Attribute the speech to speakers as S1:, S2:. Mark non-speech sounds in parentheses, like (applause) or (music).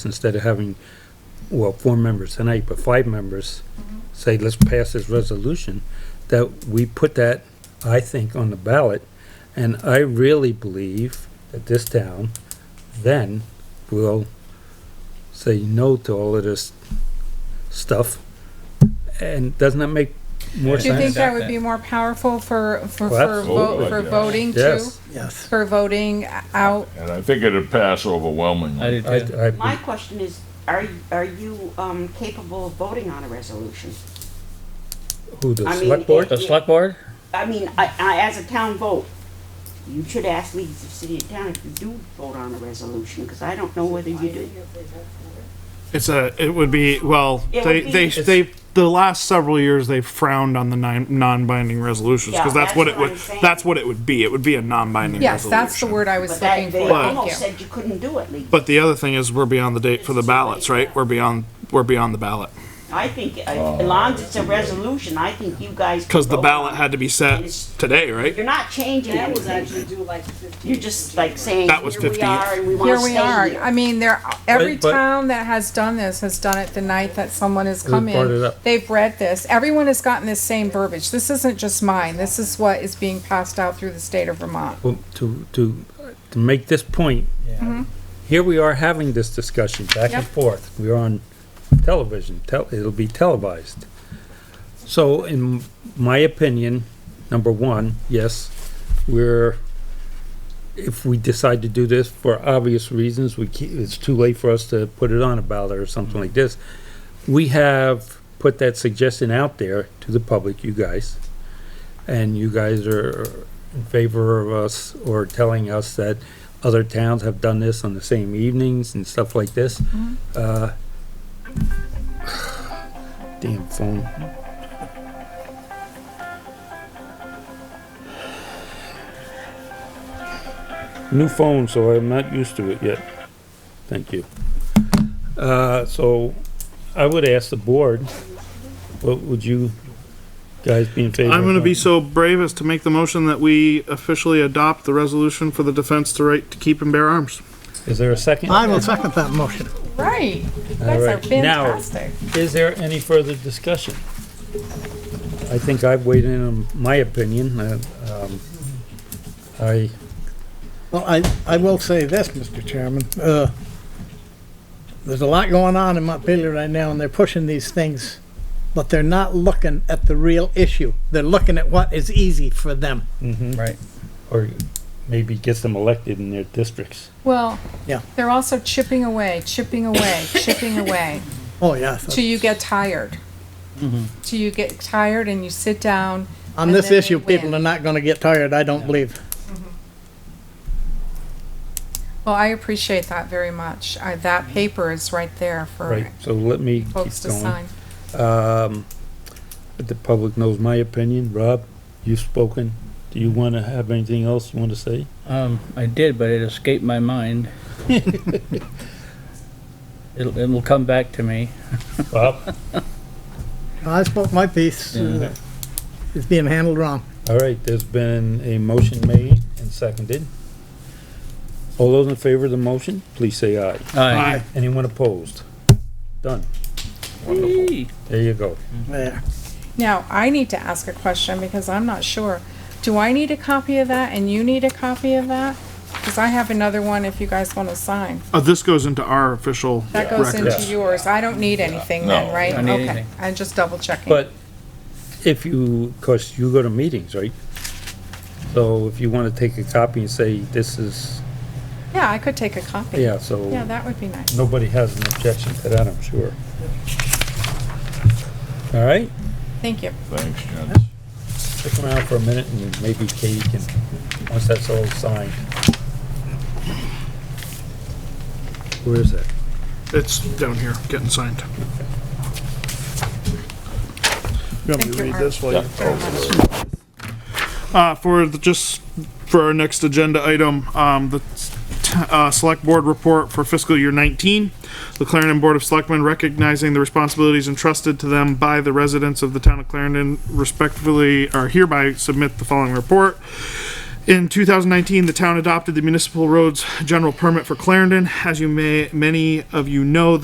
S1: instead of having, well, four members tonight, but five members say, let's pass this resolution, that we put that, I think, on the ballot. And I really believe that this town then will say no to all of this stuff. And doesn't that make more
S2: Do you think
S1: sense?
S2: that would be more powerful for, for,
S1: Well,
S2: for
S3: absolutely.
S2: vote, for voting too?
S1: Yes,
S4: Yes.
S2: For voting out,
S3: And I think it'd pass overwhelmingly.
S1: I,
S5: My
S1: I,
S5: question is, are, are you um, capable of voting on a resolution?
S1: who, the
S5: I mean,
S1: select board?
S5: it-
S6: The select board?
S5: I mean, I, I, as a town vote, you should ask leaders of city and town if you do vote on a resolution, because I don't know whether you do.
S7: It's a. It would be well.
S5: It
S7: they
S5: would
S7: they
S5: be-
S7: they the last several years they frowned on the nine, non-binding resolutions
S5: Yeah,
S7: because that's,
S5: that's
S7: what it
S5: what
S7: would.
S5: I'm saying.
S7: That's what it would be. It would be a non-binding.
S2: yes, that's the
S7: resolution.
S2: word I was
S5: But
S2: looking
S5: that,
S2: for,
S5: they almost
S2: thank you.
S5: said you couldn't do it legally.
S7: But the other thing is, we're beyond the date for the ballots, right? We're beyond. We're beyond the ballot
S5: I think, uh, as long as it's a resolution, I think you guys.
S7: because Oh. the
S5: vote.
S7: ballot had to be set today, right?
S5: You're not changing anything. You're just like saying,
S7: That was
S5: here we
S7: 15.
S5: are, and we want to
S2: Here
S5: stay
S2: we are,
S5: here."
S2: I mean, there, every
S1: But- but-
S2: town that has done this has done it the night that someone has come
S1: brought it
S2: in.
S1: up.
S2: They've read this, everyone has gotten this same verbiage, this isn't just mine, this is what is being passed out through the state of Vermont.
S1: Well, to, to, to make this point, here we are having this discussion back and
S2: Yep.
S1: forth. We're on television, tel, it'll be televised. So in my opinion, number one, yes, we're, if we decide to do this for obvious reasons, we keep, it's too late for us to put it on a ballot or something like this. We have put that suggestion out there to the public, you guys. And you guys are in favor of us or telling us that other towns have done this on the same evenings and stuff like this. Uh, (sighs) Damn phone. New phone, so I'm not used to it yet. Thank you. Uh, so I would ask the board, what would you guys be in favor of?
S7: I'm going to be
S1: doing?
S7: so brave as to make the motion that we officially adopt the resolution for the defense to right to keep and bear arms.
S1: Is there a second?
S4: I will second that motion.
S2: Right, you guys are
S1: Alright, now-
S2: fantastic.
S1: Is there any further discussion? I think I've weighed in on my opinion, uh, um, I,
S4: Well, I, I will say this, Mr. Chairman, uh, there's a lot going on in Montpelier right now, and they're pushing these things, but they're not looking at the real issue. They're looking at what is easy for them.
S6: Right.
S1: or maybe gets them elected in their districts.
S2: Well,
S4: Yeah.
S2: they're also chipping away, chipping away, chipping away.
S4: Oh, yes.
S2: till you get tired.
S1: Mm-hmm.
S2: Till you get tired and you sit down.
S4: On
S2: and
S4: this
S2: then
S4: issue,
S2: they
S4: people
S2: win.
S4: are not gonna get tired, I don't believe.
S2: Well, I appreciate that very much. I, that paper is right there for
S1: Right, so let me
S2: folks
S1: keep
S2: to
S1: going.
S2: sign.
S1: Um, but the public knows my opinion. Rob, you've spoken. Do you want to have anything else you want to say?
S6: Um, I did, but it escaped my mind. It'll, it'll come back to me.
S1: Bob?
S4: I spoke my piece, uh, it's being handled wrong.
S1: All right, there's been a motion made and seconded. All those in favor of the motion, please say aye.
S6: Aye.
S1: Anyone opposed? Done.
S6: Yee.
S1: There you go.
S4: There.
S2: Now, I need to ask a question because I'm not sure. Do I need a copy of that and you need a copy of that? Because I have another one if you guys want to sign.
S7: Uh, this goes into our official
S2: That goes
S7: records.
S2: into yours. I don't need anything then,
S3: No,
S2: right?
S6: don't need
S2: Okay,
S6: anything.
S2: I'm just double checking.
S1: But if you, cause you go to meetings, right? So if you wanna take a copy and say, this is,
S2: Yeah, I could take a copy.
S1: yeah,
S2: Yeah,
S1: so
S2: that would be nice.
S1: nobody has an objection to that, I'm sure. All right,
S2: Thank you.
S3: Thanks, Jen.
S1: stick around for a minute and maybe Katie can, once that's all signed. Where is that?
S7: It's down here getting signed. You want
S2: Thank
S7: me to
S2: you,
S7: read
S2: Art.
S7: this while you?
S2: Very much.
S7: Uh, for the, just for our next agenda item, um, the, t- uh, select board report for fiscal year nineteen. The Clarendon Board of Selectmen recognizing the responsibilities entrusted to them by the residents of the town of Clarendon respectfully are hereby submit the following report. In 2019, the town adopted the municipal roads general permit for Clarendon. As you may, many of you know,